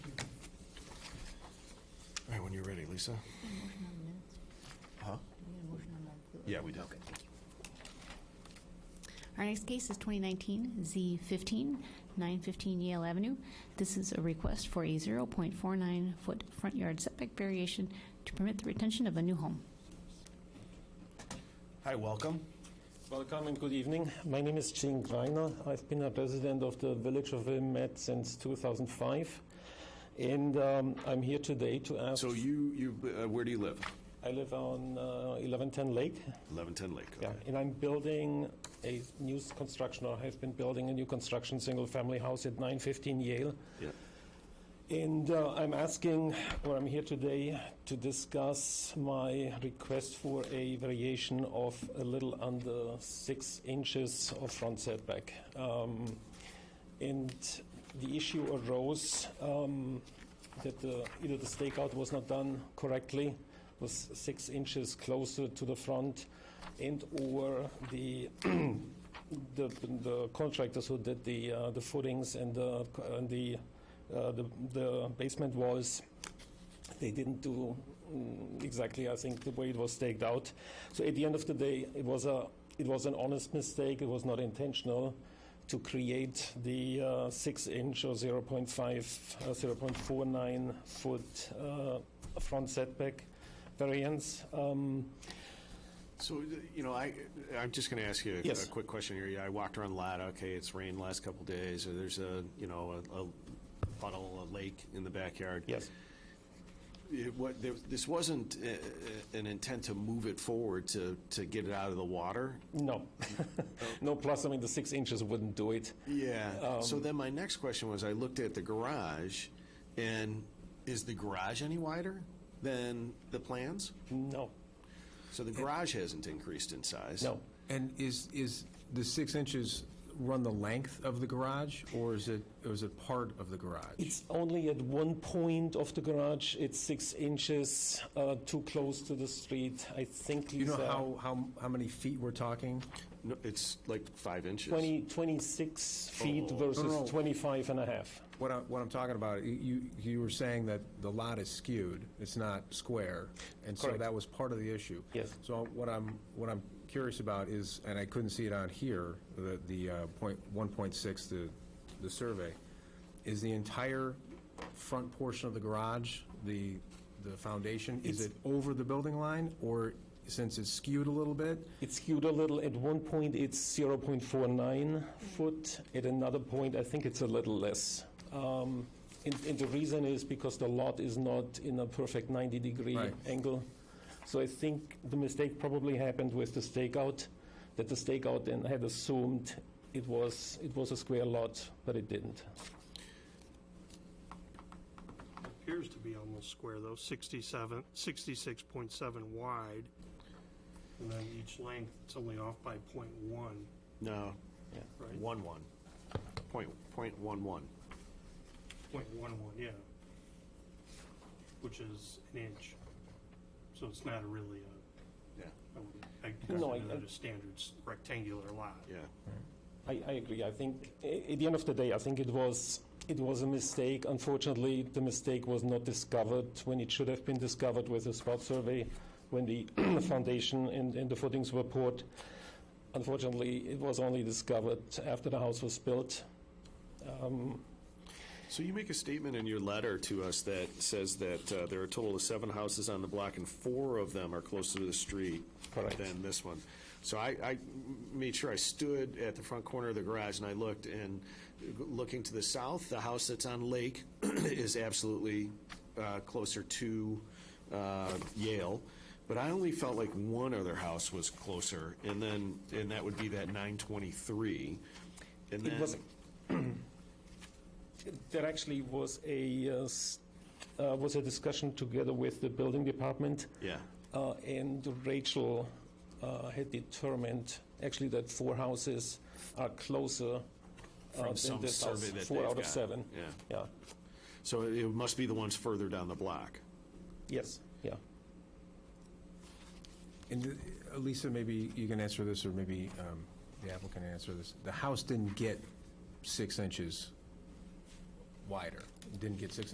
Lisa? Motion on the minutes? Huh? Do we get a motion on that? Yeah, we do. Okay, thank you. Our next case is 2019 Z15, 915 Yale Avenue. This is a request for a 0.49-foot front yard setback variation to permit the retention of a new home. Hi, welcome. Welcome and good evening. My name is Gene Greiner. I've been a resident of the village of Wilmette since 2005. And um, I'm here today to ask. So you, you, uh, where do you live? I live on uh, 1110 Lake. 1110 Lake. okay. Yeah. And I'm building a new s- construction, or have been building a new construction single family house at 915 Yale. Yeah. And uh, I'm asking, or I'm here today to discuss my request for a variation of a little under six inches of front setback. Um, and the issue arose um, that the, either the stakeout was not done correctly, was six inches closer to the front, and or the the, the contractors who did the uh, the footings and the and the, uh, the the basement walls, they didn't do mm, exactly I think the way it was staked out. So at the end of the day, it was a it was an honest mistake. It was not intentional to create the uh, six inch or 0.5 uh, 0.49 foot uh, front setback variance. Um, So, uh, you know, I, I'm just going to ask you a- Yes. a quick question here. Yeah, I walked around Lada, okay, it's rained last couple days, or there's a, you know, a- a puddle, a lake in the backyard. yes. It wa- there- This wasn't uh, uh, an intent to move it forward to, to get it out of the water? No. no, plus, I mean, the six inches wouldn't do it. Yeah. So then my next question was, I looked at the garage, and is the garage any wider than the plans? No, So the garage hasn't increased in size? no. And is, is the six inches run the length of the garage, or is it, or is it part of the garage? It's only at one point of the garage. It's six inches uh, too close to the street. I think uh, You know Lisa, how, how, how many feet we're talking? No, it's like five inches. 20, 26 feet Oh. versus No, no. 25 and a half. What I, what I'm talking about, you- you, you were saying that the lot is skewed, it's not square, and so Correct. that was part of the issue. Yes. So what I'm, what I'm curious about is, and I couldn't see it on here, the, the uh, point, 1.6, the, the survey, is the entire front portion of the garage, the, the foundation, is it over the building line, or since it's skewed a little bit, It's skewed a little. At one point, it's 0.49 foot. At another point, I think it's a little less. Um, and, and the reason is because the lot is not in a perfect 90 degree Right. angle. So I think the mistake probably happened with the stakeout, that the stakeout then had assumed it was it was a square lot, but it didn't. Appears to be almost square, though, 67, 66.7 wide, and then each length, it's only off by .1, No, right? one one. Point, point one one. .11, yeah, which is an inch. So it's not really a, Yeah, I would- I No, I- consider that a standard s- rectangular lot. yeah. I, I agree. I think a- at the end of the day, I think it was it was a mistake. Unfortunately, the mistake was not discovered when it should have been discovered with a spot survey, when the foundation and, and the footings were poured. Unfortunately, it was only discovered after the house was built. So you make a statement in your letter to us that says that uh, there are a total of seven houses on the block, and four of them are closer to the street Correct. than this one. So I, I made sure I stood at the front corner of the garage and I looked, and looking to the south, the house that's on Lake is absolutely uh, closer to uh, Yale. But I only felt like one other house was closer, and then, and that would be that 923. And It was then, there actually was a uh, s- uh, was a discussion together with the building department. yeah, Uh, and Rachel uh, had determined actually that four houses are closer uh, From than some this house. survey that Four they've out of got, seven. yeah. Yeah. so it must be the ones further down the block. Yes. Yeah. And uh, Lisa, maybe you can answer this, or maybe um, the applicant can answer this. The house didn't get six inches wider, It didn't get six